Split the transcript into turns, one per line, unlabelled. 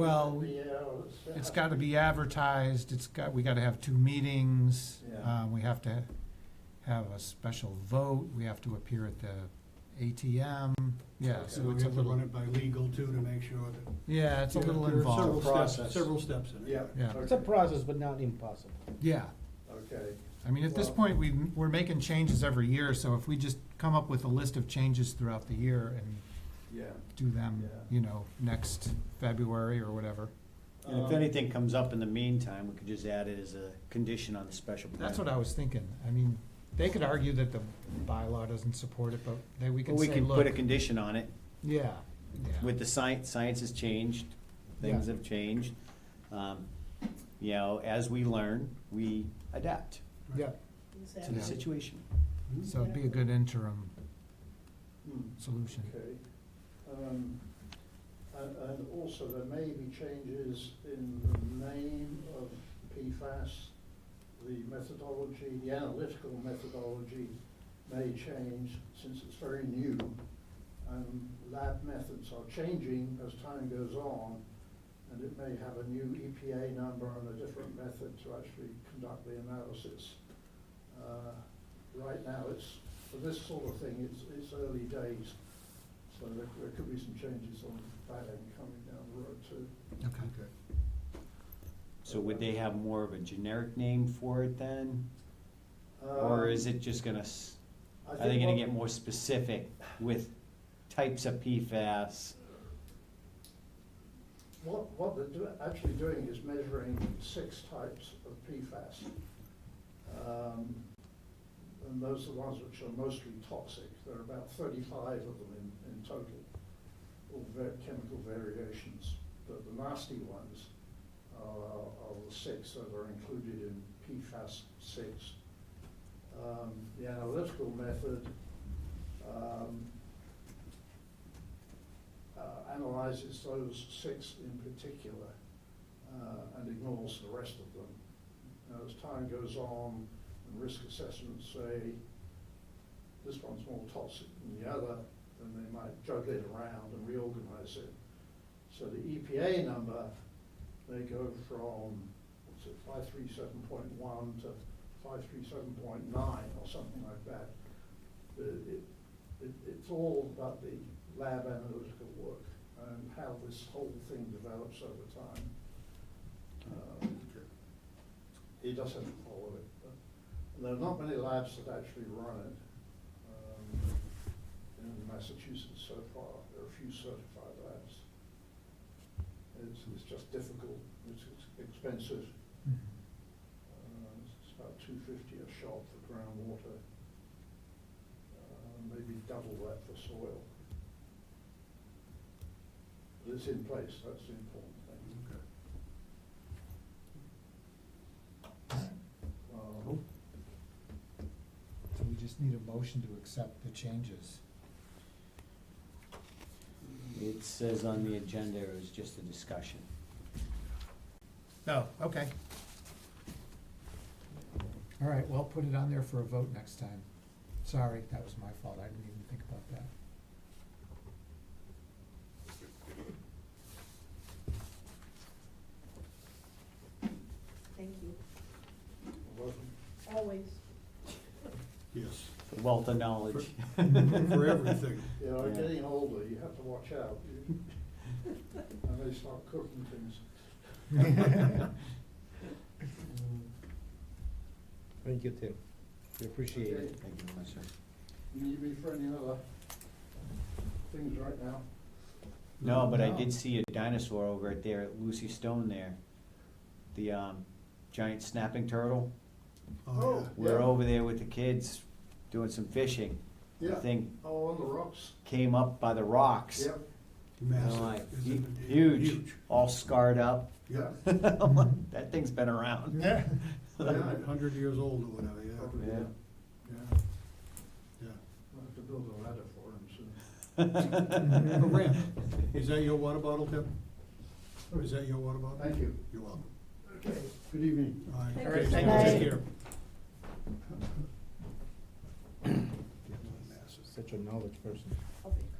Well,
Three hours.
it's gotta be advertised, it's got, we gotta have two meetings.
Yeah.
Uh, we have to have a special vote, we have to appear at the ATM, yeah, so
So we
it's a
have to run
little,
it by legal too to make sure that.
yeah, it's a little
There are several
involved,
steps-
Process.
Several steps in it.
Yeah.
Yeah.
It's a process, but not impossible.
yeah.
Okay,
I mean, at this
Well-
point, we, we're making changes every year, so if we just come up with a list of changes throughout the year and
yeah.
do them,
Yeah.
you know, next February or whatever.
And if
Um,
anything comes up in the meantime, we could just add it as a condition on the special permit.
That's what I was thinking. I mean, they could argue that the bylaw doesn't support it, but then we
But
can
we
say,
can put a
look,
condition on it
yeah, yeah,
with the science, science has changed, things have changed. Um, You know, as we learn, we adapt
yeah.
to the situation.
So it'd be a good interim
hmm,
solution.
Okay. Um, And, and also there may be changes in the name of PFAS, the methodology, the analytical methodology may change since it's very new. And lab methods are changing as time goes on, and it may have a new EPA number and a different method to actually conduct the analysis. Uh, Right now, it's, for this sort of thing, it's, it's early days, so there, there could be some changes on that end coming down the road too.
Okay.
Okay.
So would they have more of a generic name for it then?
Um,
Or is it just gonna, s-
Um, I
are they gonna
what-
get more specific with types of PFAS?
What, what they're do- actually doing is measuring six types of PFAS. Um, And those are the ones which are mostly toxic. There are about thirty-five of them in, in total, all ver- chemical variations. But the nasty ones are, are the six that are included in PFAS six. Um, The analytical method, um, uh, analyzes those six in particular uh, and ignores the rest of them. Now, As time goes on, and risk assessments say, this one's more toxic than the other, then they might juggle it around and reorganize it. So the EPA number, they go from, what's it, five three seven point one to five three seven point nine or something like that. But it, it, it's all about the lab analytical work and how this whole thing develops over time. Um, He does have to follow it, but there are not many labs that actually run it um, in Massachusetts so far. There are a few certified labs. It's, it's just difficult, it's it's expensive.
Mhm.
Uh, It's about two fifty a shot for groundwater, uh, maybe double that for soil. But it's in place, that's the important thing. Um,
Cool. So we just need a motion to accept the changes.
It says on the agenda it was just a discussion.
Oh, okay. All right, well, put it on there for a vote next time. Sorry, that was my fault, I didn't even think about that.
Thank you,
welcome.
always.
Yes,
Wealth of knowledge.
for everything.
Yeah, I'm
Yeah.
getting older, you have to watch out. You- And they start cooking things.
Thank you, Tim. We appreciate
Okay.
it.
Thank you very much, sir.
You need me for any other things right now?
No, but I
No.
did see a dinosaur over at there, at Lucy Stone there. The, um, giant snapping turtle.
Oh,
Oh.
yeah.
We're
Yeah.
over there with the kids doing some fishing. The
Yeah.
thing
Oh, on the rocks?
came up by the rocks.
Yep,
And I'm
Massive.
like,
It's
"Hu-
a-
Huge, all scarred up.
Yeah,
I'm like, That thing's been around.
Yeah.
Yeah.
hundred years old or whatever,
Probably,
yeah,
yeah.
Yeah.
yeah, yeah.
I'll have to build a ladder for him soon.
A ramp. Is that your water bottle, Tim? Or is that your water bottle?
Thank you.
You're welcome.
Okay, good evening.
All right,
Thank
great.
you.
Take
Thank you.
care.
Such a knowledge person.
I'll be.